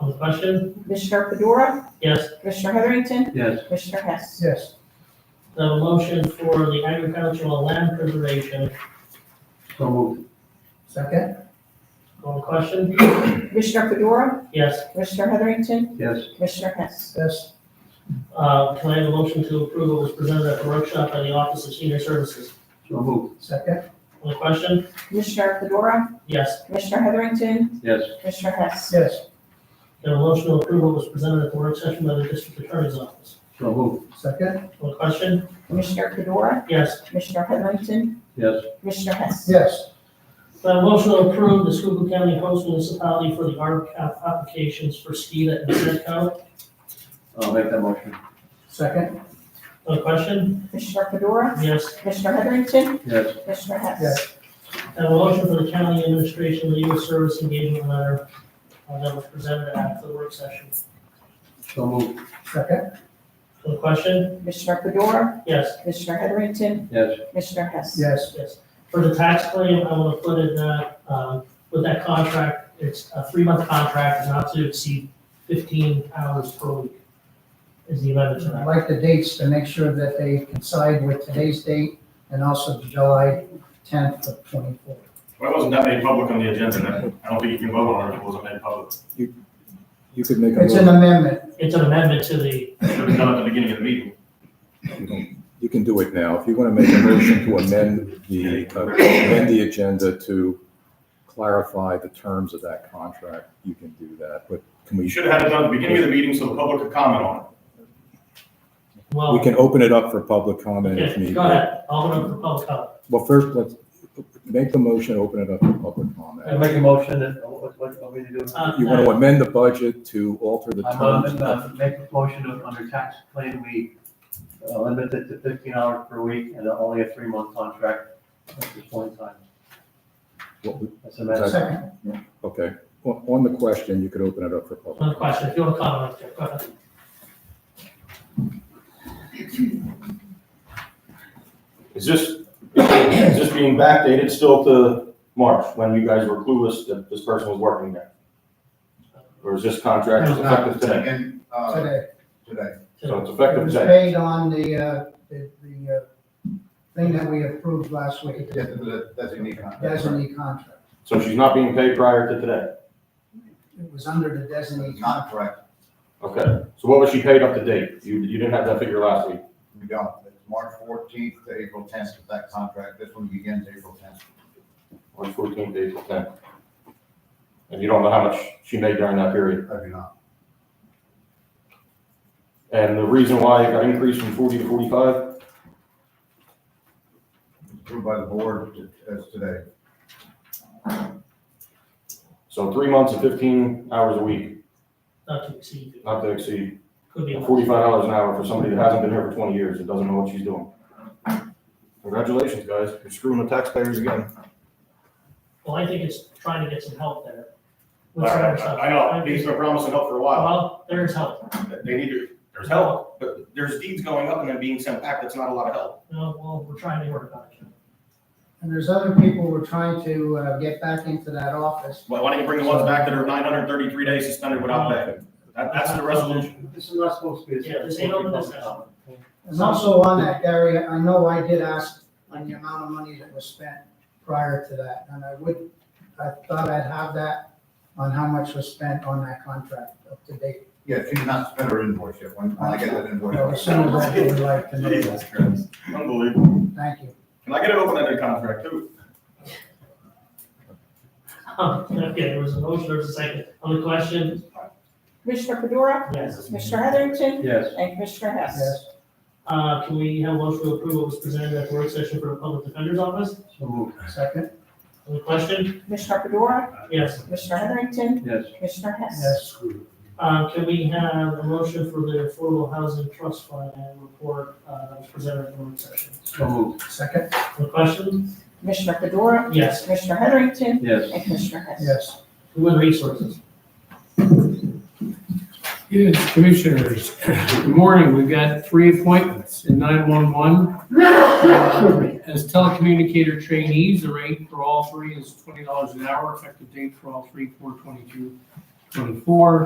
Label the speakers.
Speaker 1: On the question?
Speaker 2: Commissioner Fedora,
Speaker 1: Yes.
Speaker 2: Commissioner Heatherington,
Speaker 3: Yes.
Speaker 2: Commissioner Hess.
Speaker 4: yes,
Speaker 1: I have a motion for the agricultural land preservation.
Speaker 3: So moved.
Speaker 4: second,
Speaker 1: On the question?
Speaker 2: Commissioner Fedora,
Speaker 1: Yes.
Speaker 2: Commissioner Heatherington,
Speaker 3: Yes.
Speaker 2: Commissioner Hess.
Speaker 4: yes,
Speaker 1: Uh, Can I have a motion to approve what was presented at the workshop by the Office of Senior Services?
Speaker 3: So moved.
Speaker 4: second,
Speaker 1: On the question?
Speaker 2: Commissioner Fedora,
Speaker 1: Yes.
Speaker 2: Commissioner Heatherington,
Speaker 3: Yes.
Speaker 2: Commissioner Hess.
Speaker 4: yes,
Speaker 1: Can I have a motion to approve what was presented at the work session by the District Attorney's Office?
Speaker 3: So moved.
Speaker 4: second,
Speaker 1: On the question?
Speaker 2: Commissioner Fedora,
Speaker 1: Yes.
Speaker 2: Commissioner Heatherington,
Speaker 3: Yes.
Speaker 2: Commissioner Hess.
Speaker 4: yes,
Speaker 1: Can I have a motion to approve the Schuylkill County host municipality for the ARP app- applications for SKIDA and SETCO?
Speaker 3: I'll make that motion.
Speaker 4: second,
Speaker 1: On the question?
Speaker 2: Commissioner Fedora,
Speaker 1: Yes.
Speaker 2: Commissioner Heatherington,
Speaker 3: Yes.
Speaker 2: Commissioner Hess.
Speaker 4: yes,
Speaker 1: And a motion for the county administration legal service engagement letter uh, that was presented at the work session.
Speaker 3: So moved.
Speaker 4: second,
Speaker 1: No question?
Speaker 2: Commissioner Fedora,
Speaker 1: Yes,
Speaker 2: Commissioner Heatherington,
Speaker 3: Yes.
Speaker 2: Commissioner Hess.
Speaker 4: yes,
Speaker 1: yes. For the tax claim, I want to put in that, um, with that contract, it's a three-month contract, not to exceed fifteen hours per week is the amendment to
Speaker 4: I
Speaker 1: that.
Speaker 4: like the dates to make sure that they coincide with today's date and also July tenth of twenty-four.
Speaker 5: Well, it wasn't that made public on the agenda, and I don't think you can vote on it if it wasn't made public.
Speaker 6: You could make a
Speaker 4: It's an
Speaker 6: motion,
Speaker 4: amendment,
Speaker 1: It's an amendment to the,
Speaker 5: It should have been done at the beginning of the meeting.
Speaker 6: you can do it now. If you want to make a motion to amend the, uh, amend the agenda to clarify the terms of that contract, you can do that, but can
Speaker 5: You
Speaker 6: we,
Speaker 5: should have had it done at the beginning of the meeting so the public could comment on it.
Speaker 1: well,
Speaker 6: we can open it up for public comment if
Speaker 1: okay,
Speaker 6: needed.
Speaker 1: go ahead, Alderman for public comment.
Speaker 6: Well, first, let's make the motion, open it up for public
Speaker 3: I
Speaker 6: comment.
Speaker 3: make a motion that, what, what, what we do?
Speaker 1: Uh,
Speaker 6: You want to amend the budget to alter the
Speaker 3: I'm
Speaker 6: terms. of-
Speaker 3: gonna uh, make a motion of, under tax claim, we uh, limit it to fifteen hours per week and only a three-month contract at this point in time.
Speaker 6: what we-
Speaker 3: That's a matter.
Speaker 4: second,
Speaker 6: Okay, on, on the question, you could open it up for public.
Speaker 1: One question, if you want to comment, Jeff, go ahead.
Speaker 5: Is this, is this being backdated still to March, when you guys were clueless that this person was working there? Or is this contract
Speaker 7: It's not
Speaker 5: effective
Speaker 7: the
Speaker 5: today?
Speaker 7: second, uh,
Speaker 4: today.
Speaker 7: today.
Speaker 5: So it's
Speaker 4: It
Speaker 5: effective
Speaker 4: was
Speaker 5: today?
Speaker 4: paid on the, uh, the, the, uh, thing that we approved last week,
Speaker 7: Yes, that- that's a unique contract.
Speaker 4: designee contract.
Speaker 5: So she's not being paid prior to today?
Speaker 4: It was under the designee contract.
Speaker 7: Contract,
Speaker 5: Okay, so what was she paid up to date? You, you didn't have that figure last week?
Speaker 7: we don't, it's March fourteenth to April tenth of that contract, this one begins April tenth.
Speaker 5: March fourteenth, April tenth. And you don't know how much she made during that period.
Speaker 7: I do not,
Speaker 5: And the reason why it got increased from forty to forty-five?
Speaker 7: approved by the board to- as today,
Speaker 5: So three months and fifteen hours a week,
Speaker 1: Not to exceed,
Speaker 5: not to exceed
Speaker 1: could be. a month.
Speaker 5: forty-five dollars an hour for somebody that hasn't been here for twenty years and doesn't know what she's doing. Congratulations, guys. You're screwing the taxpayers again.
Speaker 1: Well, I think it's trying to get some help there.
Speaker 5: All right, I know, these have been promising help for a while.
Speaker 1: Well, there is help.
Speaker 5: They need to, there's help, but there's deeds going up and then being sent back. That's not a lot of help.
Speaker 1: No, well, we're trying to work on it.
Speaker 4: And there's other people we're trying to uh, get back into that office.
Speaker 5: Why why don't you bring the ones back that are nine hundred thirty-three days suspended without pay? That, that's the resolution.
Speaker 3: This is not supposed to be.
Speaker 1: Yeah, this ain't open discussion.
Speaker 4: And also on that, Gary, I know I did ask on the amount of money that was spent prior to that, and I would, I thought I'd have that on how much was spent on that contract up to date.
Speaker 7: yeah, she's not spent her invoice yet, when, when I get that invoice.
Speaker 4: Or As soon as I would like to know that.
Speaker 5: Unbelievable.
Speaker 4: Thank you.
Speaker 5: Can I get it open ended contract too?
Speaker 1: Um, Okay, there was a motion, there was a second. On the question,
Speaker 2: Commissioner Fedora,
Speaker 1: yes.
Speaker 2: Commissioner Heatherington,
Speaker 3: Yes.
Speaker 2: and Commissioner Hess.
Speaker 4: Yes,
Speaker 1: Uh, can we have a motion to approve what was presented at the work session for the public defender's office?
Speaker 3: So moved.
Speaker 4: second,
Speaker 1: On the question,
Speaker 2: Commissioner Fedora,
Speaker 1: yes.
Speaker 2: Commissioner Heatherington,
Speaker 3: Yes.
Speaker 2: Commissioner Hess.
Speaker 4: yes,
Speaker 1: Uh, can we have a motion for the Affordable Housing Trust Fund and report, uh, that was presented at the work session?
Speaker 3: So moved.
Speaker 4: second,
Speaker 1: On the question,
Speaker 2: Commissioner Fedora,
Speaker 1: yes.
Speaker 2: Commissioner Heatherington,
Speaker 3: Yes.
Speaker 2: and Commissioner Hess.
Speaker 4: yes.
Speaker 1: Human Resources.
Speaker 8: Yes, commissioners, good morning. We've got three appointments in 911. Uh, As telecommunicator trainees, the rate for all three is $20 an hour, effective date for all three, 4/22, 24.